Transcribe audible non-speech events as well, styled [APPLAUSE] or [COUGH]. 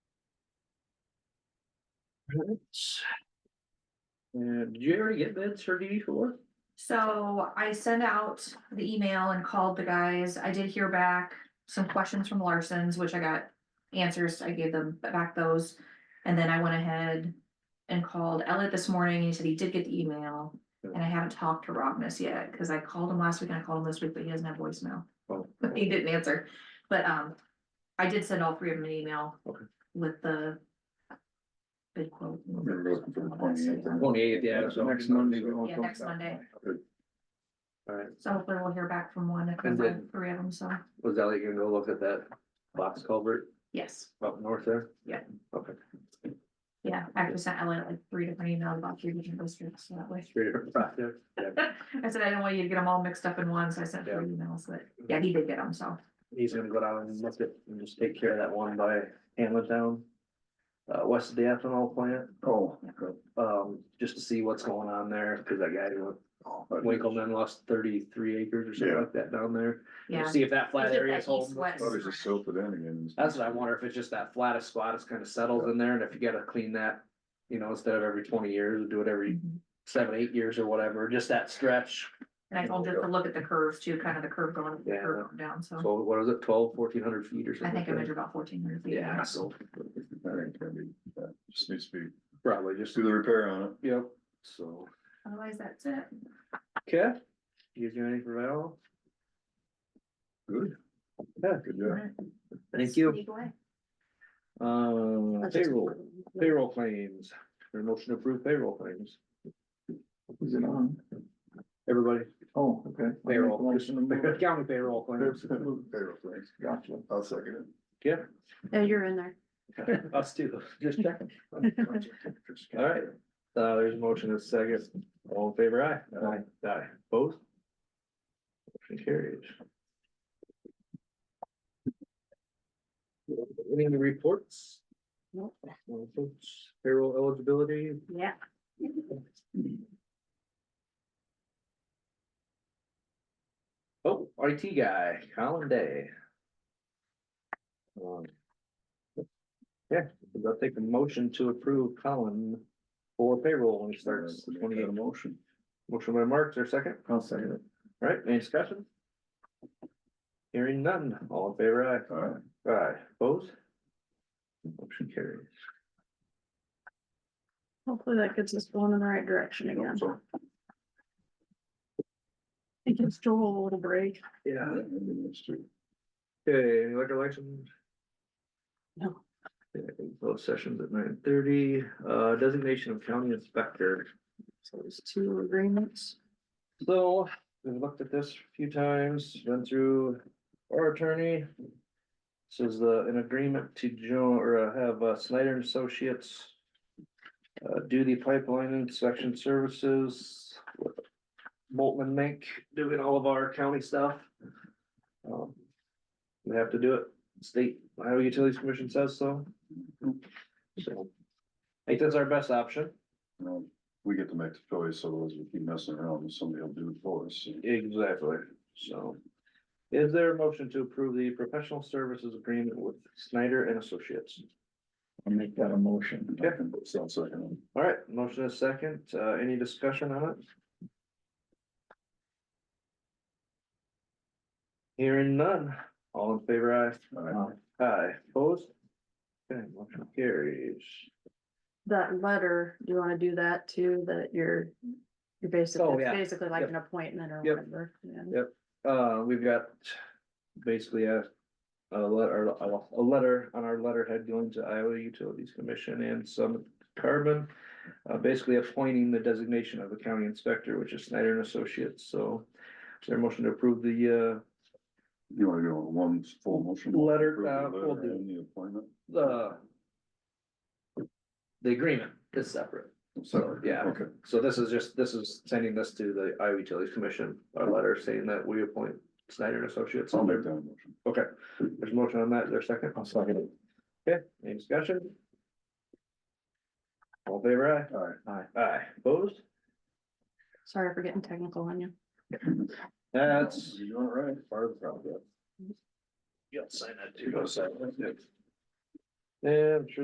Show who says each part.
Speaker 1: And did you ever get bids for DD four?
Speaker 2: So I sent out the email and called the guys. I did hear back some questions from Larson's, which I got answers. I gave them back those. And then I went ahead and called Elliot this morning. He said he did get the email. And I haven't talked to Rognus yet, because I called him last week and I called him this week, but he doesn't have voicemail.
Speaker 1: [LAUGHS] Oh.
Speaker 2: He didn't answer, but um, I did send all three of them an email.
Speaker 1: Okay.
Speaker 2: With the. Bid quote.
Speaker 3: Remember looking for the 28th and-
Speaker 1: Twenty eighth, yeah, so next Monday. we won't
Speaker 2: Yeah,
Speaker 1: talk
Speaker 2: next
Speaker 1: about
Speaker 2: Monday.
Speaker 1: that. Alright,
Speaker 2: So hopefully we'll hear back from one, if
Speaker 1: And
Speaker 2: not
Speaker 1: then-
Speaker 2: three of them, so,
Speaker 1: was that like, you go look at that box culvert
Speaker 2: yes,
Speaker 1: up north there?
Speaker 2: Yeah.
Speaker 1: Okay.
Speaker 2: yeah, I actually sent Elliot like three different emails about three different districts, so that way. [LAUGHS]
Speaker 1: Three different projects, yeah.
Speaker 2: I said I didn't want you to get them all mixed up in one, so I sent three emails, but, yeah, he did get them, so,
Speaker 1: He's gonna go down and look at and just take care of that one by Hamlet Town. Uh, west of the ethanol plant,
Speaker 3: Oh.
Speaker 1: um, just to see what's going on there, cause that guy, who- Winkleman lost thirty-three acres or something
Speaker 3: Yeah.
Speaker 1: like that down there.
Speaker 2: yeah.
Speaker 1: See if that flat
Speaker 2: Is it
Speaker 1: area
Speaker 2: that
Speaker 1: is holding.
Speaker 2: east, west?
Speaker 3: Thought it just silted in again.
Speaker 1: That's what I wonder, if it's just that flattest spot, it's kind of settled in there, and if you gotta clean that, you know, instead of every twenty years, do it every
Speaker 2: Mhm.
Speaker 1: seven, eight years or whatever, just that stretch.
Speaker 2: And I told him to look at the curves too, kind of the curve going, up, the
Speaker 1: Yeah.
Speaker 2: curve going down, so
Speaker 1: So what is it, twelve, fourteen hundred feet or
Speaker 2: I
Speaker 1: something?
Speaker 2: think I measured about fourteen hundred feet.
Speaker 1: Yeah, so
Speaker 3: That ain't gonna be- that Just needs to be,
Speaker 1: probably just,
Speaker 3: just do the repair on it.
Speaker 1: yep, so.
Speaker 2: Otherwise, that's it.
Speaker 1: Okay, you guys got anything for Val?
Speaker 3: Good.
Speaker 1: Yeah.
Speaker 3: Good job.
Speaker 1: Thank you.
Speaker 2: Sneak away.
Speaker 1: Um, payroll, payroll claims, your motion to approve payroll claims,
Speaker 4: Is it on?
Speaker 1: everybody,
Speaker 4: Oh, okay.
Speaker 1: payroll, just
Speaker 4: Motion to move it.
Speaker 3: [LAUGHS]
Speaker 1: county payroll [LAUGHS] claims,
Speaker 3: Payroll things.
Speaker 4: Gotcha.
Speaker 3: I'll second
Speaker 1: yeah,
Speaker 5: Yeah, you're in there.
Speaker 1: us too, just checking.
Speaker 3: it.
Speaker 1: All right, uh, there's a motion and a second, all in favor, aye? Aye. Aye, both? Motion carries. Any other reports?
Speaker 5: Nope.
Speaker 1: No folks. Payroll eligibility,
Speaker 5: Yeah.
Speaker 1: oh, IT guy, Colin Day. Um, Yeah, I'll take a motion to approve Colin for payroll when he starts the twenty eighth.
Speaker 3: motion.
Speaker 1: Motion by Mark, is there a second?
Speaker 4: I'll second it.
Speaker 1: All Right, any discussion? Hearing none, all in favor,
Speaker 3: All right.
Speaker 1: aye, aye, opposed? Motion carries.
Speaker 5: Hopefully that gets us going in the right direction again. It gives Joel a little break.
Speaker 1: Yeah.
Speaker 3: That's true.
Speaker 1: Okay, any liquor license?
Speaker 5: No.
Speaker 1: Okay, Closed sessions at nine thirty, uh, designation of county inspector.
Speaker 5: So there's two agreements.
Speaker 1: So, we've looked at this a few times, been through our attorney. This is the, an agreement to join or uh, have uh, Snyder and Associates. Uh, do the pipeline inspection services. with Boltman Mink doing all of our county stuff. Um, We have to do it, state Iowa Utilities Commission says so. So, I think that's our best option.
Speaker 3: You know, We get to make the choice, otherwise we keep messing around and somebody will do it for us.
Speaker 1: Exactly, so. Is there a motion to approve the professional services agreement with Snyder and Associates?
Speaker 4: I'll make that a motion.
Speaker 1: Yeah.
Speaker 3: So I'll second
Speaker 1: All right, motion is second, uh, any discussion on it? Hearing none, all in favor,
Speaker 3: it. All right.
Speaker 1: aye, aye, opposed? Okay, motion carries.
Speaker 5: That letter, do you wanna do that too, that you're, you're
Speaker 1: Oh,
Speaker 5: basically,
Speaker 1: yeah.
Speaker 5: basically like
Speaker 1: Yep.
Speaker 5: an appointment or
Speaker 1: Yep.
Speaker 5: whatever. yeah.
Speaker 1: Uh, we've got basically a, a letter, a letter on our letterhead going to Iowa Utilities Commission and some carbon. Uh, basically appointing the designation of the county inspector, which is Snyder and Associates, so. Is there a motion to approve the, uh,
Speaker 3: You wanna go on one full motion?
Speaker 1: Letter,
Speaker 3: Approve the
Speaker 1: uh, we'll
Speaker 3: letter
Speaker 1: do.
Speaker 3: and The appointment.
Speaker 1: the. uh, The agreement is separate, so,
Speaker 3: Separate,
Speaker 1: yeah,
Speaker 3: Okay.
Speaker 1: so this is just, this is sending this to the Iowa Utilities Commission, our letter saying that we appoint Snyder and Associates.
Speaker 3: I'll make that a motion.
Speaker 1: Okay, there's a motion on that, is there a second?
Speaker 4: I'll second it.
Speaker 1: Okay, any discussion? All in favor
Speaker 3: All right.
Speaker 1: aye? Aye. Aye, opposed?
Speaker 5: Sorry for getting technical on you.
Speaker 1: That's.
Speaker 3: You're doing it right. Part of the problem.
Speaker 1: You'll sign that too. Yeah, I'm sure